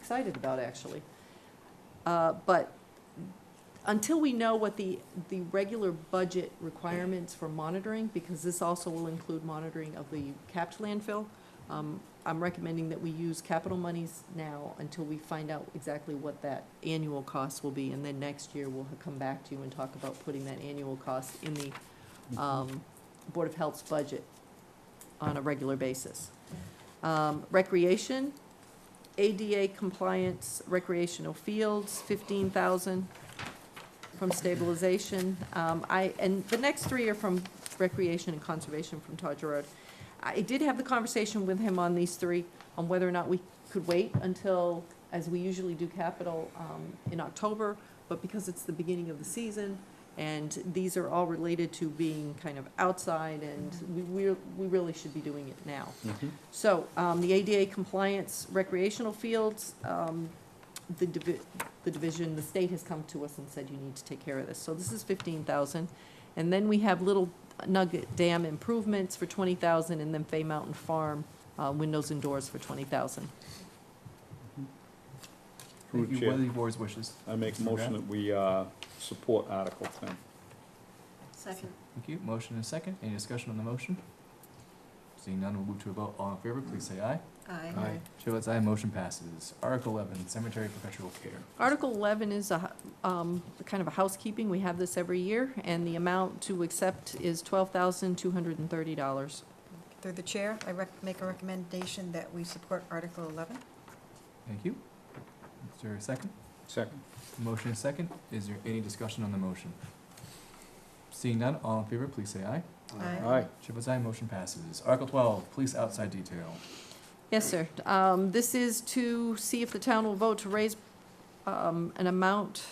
excited about, actually. Uh, But until we know what the, the regular budget requirements for monitoring, because this also will include monitoring of the capped landfill, um, I'm recommending that we use capital monies now until we find out exactly what that annual cost will be. And then next year, we'll have come back to you and talk about putting that annual cost in the um, Board of Health's budget on a regular basis. Um, Recreation, ADA compliance recreational fields, fifteen thousand from stabilization. Um, I, and the next three are from recreation and conservation from Todd Gerard. I did have the conversation with him on these three, on whether or not we could wait until, as we usually do capital, um, in October, but because it's the beginning of the season, and these are all related to being kind of outside, and we, we're- we really should be doing it now. So, um, the ADA compliance recreational fields, um, the divi- the division, the state has come to us and said you need to take care of this. So this is fifteen thousand. And then we have Little Nugget Dam improvements for twenty thousand, and then Fay Mountain Farm, uh, windows and doors for twenty thousand. Through the Thank you, chair, what are the board's wishes? I make a motion that we uh, support Article 10. Second. Thank you, motion and a second, any discussion on the motion? Seeing none, we'll move to a vote, all in favor, please say aye. Aye. Chair votes aye, motion passes. Article eleven, cemetery perpetual care. Article eleven is a, hu- um, kind of a housekeeping, we have this every year, and the amount to accept is twelve thousand two hundred and thirty dollars. Through the chair, I rec- make a recommendation that we support Article 11. Thank you. Is there a second? Second. Motion and a second, is there any discussion on the motion? Seeing none, all in favor, please say aye. Aye. Chair votes aye, motion passes. Article twelve, police outside detail. Yes, sir. Um, This is to see if the town will vote to raise um, an amount.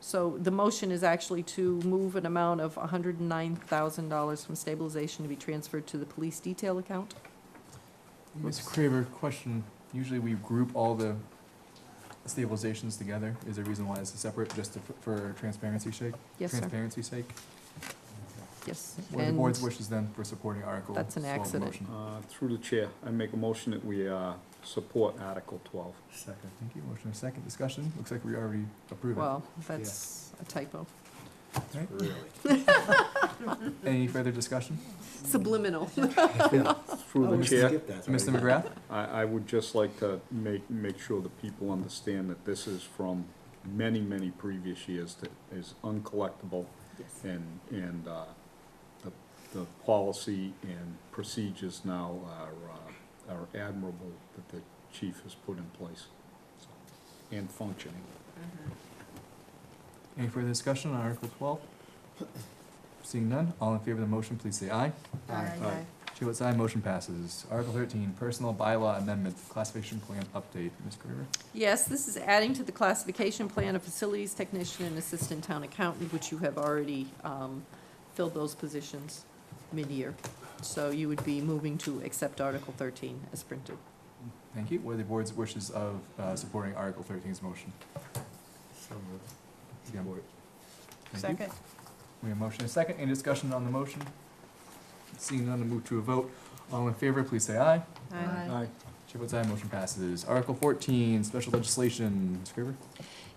So the motion is actually to move an amount of $109,000 from stabilization to be transferred to the police detail account. Ms. Craver, question, usually we group all the stabilizations together, is there a reason why it's separate, just to- for transparency sake? Yes, sir. Transparency's sake? Yes. What are the And board's wishes then for supporting Article That's an 12 accident. motion? Uh, Through the chair, I make a motion that we uh, support Article 12. Second. Thank you, motion and second, discussion, looks like we already approved it. Well, that's a typo. Right. Really? Any further discussion? Subliminal. Through the chair, Mr. McGrath? I, I would just like to make, make sure that people understand that this is from many, many previous years that is uncollectible Yes. and, and uh, the, the policy and procedures now are, uh, are admirable that the chief has put in place so, and functioning. Any further discussion on Article twelve? Seeing none, all in favor of the motion, please say aye. Aye. Chair votes aye, motion passes. Article thirteen, personal bylaw amendment, classification plan update, Ms. Craver? Yes, this is adding to the classification plan of facilities technician and assistant town accountant, which you have already um, filled those positions mid-year. So you would be moving to accept Article 13 as printed. Thank you. What are the board's wishes of uh, supporting Article 13's motion? Again, board. Thank you. Second? We have a motion and a second. Any discussion on the motion? Seeing none, to move to a vote. All in favor, please say aye. Aye. Chair votes aye, motion passes. Article 14, special legislation. Ms. Graver?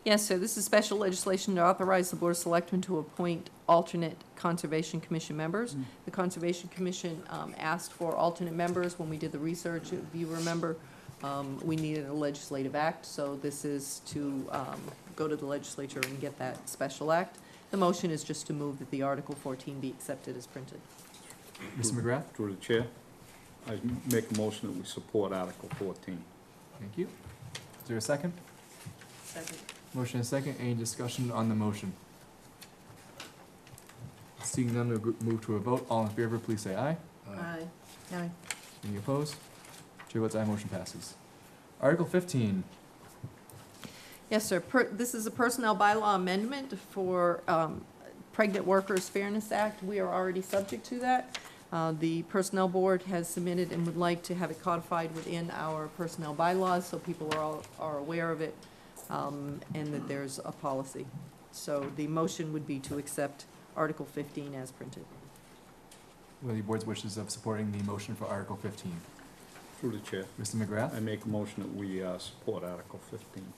Yes, sir, this is special legislation to authorize the Board of Selectmen to appoint alternate Conservation Commission members. Mm. The Conservation Commission um, asked for alternate members when we did the research. If you remember, um, we needed a legislative act, so this is to um, go to the legislature and get that special act. The motion is just to move that the Article 14 be accepted as printed. Mr. McGrath? Through the chair, I make a motion that we support Article fourteen. Thank you. Is there a second? Second. Motion and a second. Any discussion on the motion? Seeing none, we'll go- move to a vote. All in favor, please say aye. Aye. Aye. Any opposed? Chair votes aye, motion passes. Article 15, Yes, sir. Per- This is a personnel bylaw amendment for um, Pregnant Workers Fairness Act. We are already subject to that. Uh, The Personnel Board has submitted and would like to have it codified within our personnel bylaws, so people are all, are aware of it, um, and that there's a policy. So the motion would be to accept Article 15 as printed. What are the board's wishes of supporting the motion for Article fifteen? Through the chair, Mr. McGrath? I make a motion that we uh, support Article fifteen.